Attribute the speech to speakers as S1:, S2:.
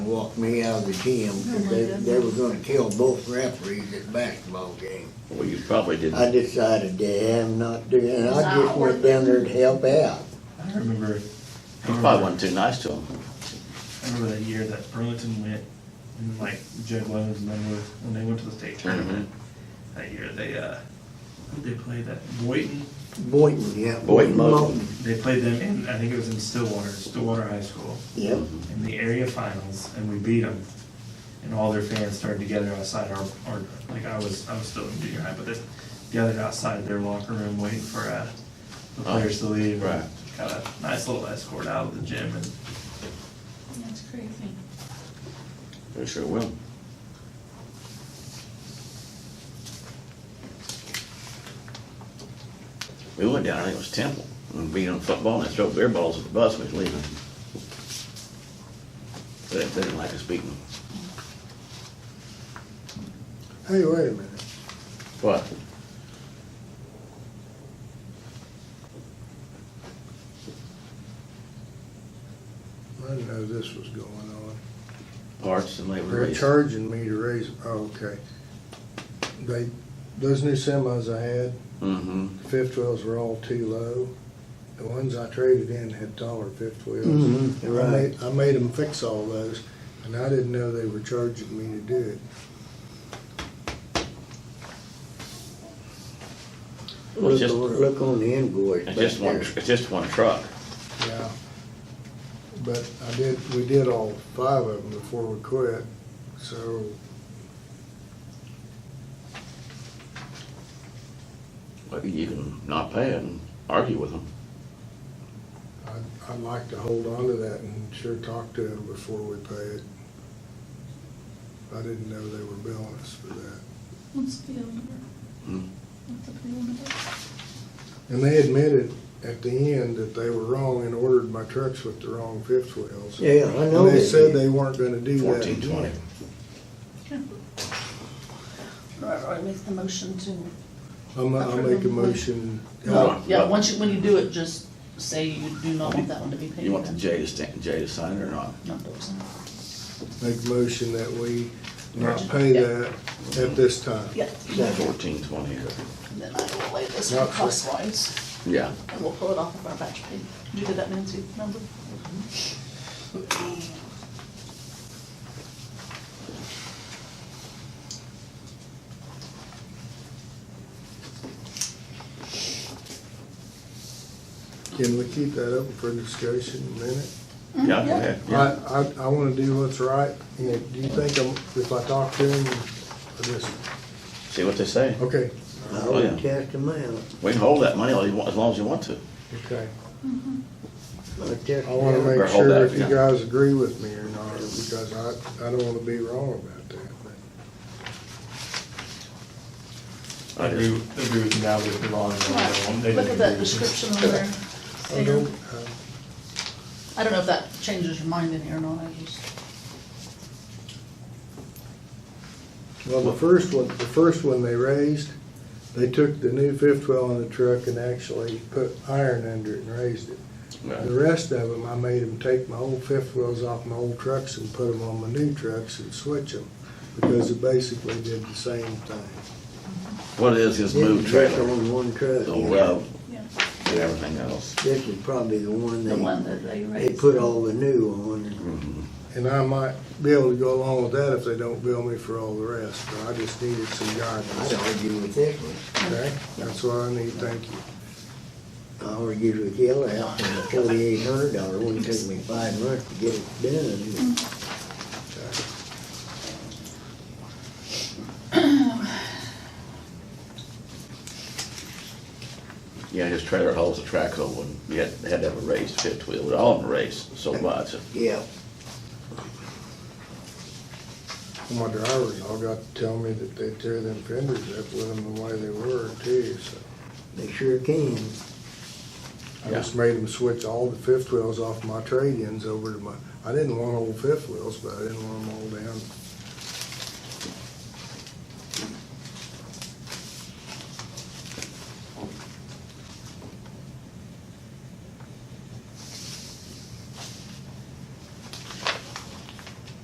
S1: walked me out of the gym,
S2: Oh
S1: 'cause they, they were gonna kill both referees at basketball game.
S3: Well, you probably
S1: I
S3: didn't.
S1: decided to have not do, and I just went down there to help out.
S4: I remember.
S3: You probably wasn't too nice to them.
S4: I remember that year that Burlington went, and like Jed Lowen's and them were, when they went to the state tournament.
S3: Mm-hmm.
S4: That year, they, uh, they played that Boynton,
S1: Boynton, yeah.
S3: Boynton Moulton.
S4: they played them in, I think it was in Stillwater, Stillwater High School,
S1: Yep,
S4: in the area finals, and we beat them. And all their fans started to gather outside our, our, like, I was, I was still in junior high, but they gathered outside their locker room waiting for, uh, the
S3: Oh,
S4: players to leave.
S3: right.
S4: Got a nice little escort out of the gym and
S5: That's crazy.
S3: They sure will. We went down, I think it was Temple, and beat on football, and they throw beer balls at the bus, we was leaving. They didn't- they didn't like us beating them.
S1: hey, wait a minute.
S3: What?
S6: I didn't know this was going on.
S3: Parts and labor
S6: They're
S3: rates.
S6: charging me to raise, oh, okay. They, those new semis I had,
S3: Mm-hmm.
S6: fifth wheels were all too low. The ones I traded in had taller fifth wheels.
S1: Mhm,
S6: I
S1: right.
S6: made, I made them fix all those, and I didn't know they were charging me to do it.
S3: Well, it's
S1: Look,
S3: just-
S1: on- look on the invoice back
S3: It's just one,
S1: there.
S3: it's just one truck.
S6: Yeah. But I did, we did all five of them before we quit, so
S3: Well, you can not pay it and argue with them.
S6: I'd, I'd like to hold on to that and sure talk to them before we pay it. I didn't know they were billing us for that.
S5: What's the PO number?
S3: Hmm.
S5: What's the PO number?
S6: And they admitted at the end that they were wrong and ordered my trucks with the wrong fifth wheels.
S1: Yeah, I know.
S6: And they said
S1: did.
S6: they weren't gonna do that
S3: Fourteen twenty.
S6: again.
S2: Right, right, make the motion to,
S6: I'm, I'll make a motion.
S3: No.
S2: yeah, once you, when you do it, just say you do not want that one to be paid.
S3: You want the
S2: then.
S3: J to stand, J to sign it or not?
S2: Not those.
S6: Make a motion that we not pay that at this time.
S2: Yeah,
S3: Fourteen twenty.
S2: and then I will lay this
S6: Not
S2: one
S6: for-
S2: crosswise,
S3: Yeah.
S2: and we'll pull it off of our batch pay. Did you get that, Nancy, number? Mm-hmm.
S6: Can we keep that open for discussion a minute?
S2: Mm-hmm.
S3: Yeah, go ahead. Yeah.
S6: I, I, I wanna do what's right. You know, Do you think I'm, if I talk to him, I just,
S3: See what they say.
S6: okay,
S1: I
S3: Oh,
S1: would
S3: yeah.
S1: test them out.
S3: We can hold that money all you want- as long as you want to.
S6: okay.
S1: I test
S6: I wanna
S1: them out.
S6: make
S3: Or hold
S6: sure
S3: that,
S6: if you
S3: yeah.
S6: guys agree with me or not, because I, I don't wanna be wrong about that.
S3: I
S4: I agree,
S3: just,
S4: agree with you now, but the wrong. one, they
S2: Look at
S4: didn't
S2: that
S4: do this.
S2: description on there.
S6: I don't,
S2: Sam.
S6: uh,
S2: I don't know if that changes your mind in here or not, I just.
S6: Well, the first one, the first one they raised, they took the new fifth wheel on the truck and actually put iron under it and raised it.
S3: yeah.
S6: The rest of them, I made them take my old fifth wheels off my old trucks and put them on my new trucks and switch them, because it basically did the same thing.
S3: what it is, is move
S1: Just
S3: trailer,
S1: on one truck.
S3: the
S1: yeah.
S3: web,
S2: Yeah.
S3: and everything else.
S1: This is probably the one
S2: The one
S1: they,
S2: that they
S1: they
S2: raised.
S1: put all the new on.
S6: And I might be able to go along with that if they don't bill me for all the rest, but I just needed some
S1: I'd
S6: guidance,
S1: argue with this one.
S6: okay? That's what I need, thank you.
S1: I argued with the other out for the forty-eight hundred dollar one, it took me five months to get it done.
S3: Yeah, his trailer holds the track hole and you had, had to have a raised fifth wheel, but all of them raised so much.
S1: Yeah,
S6: My drivers all got to tell me that they tear them fenders up with them the way they were too, so.
S1: they sure can.
S6: I just made them switch all the fifth wheels off my trade-ins over to my, I didn't want old fifth wheels, but I didn't want them all down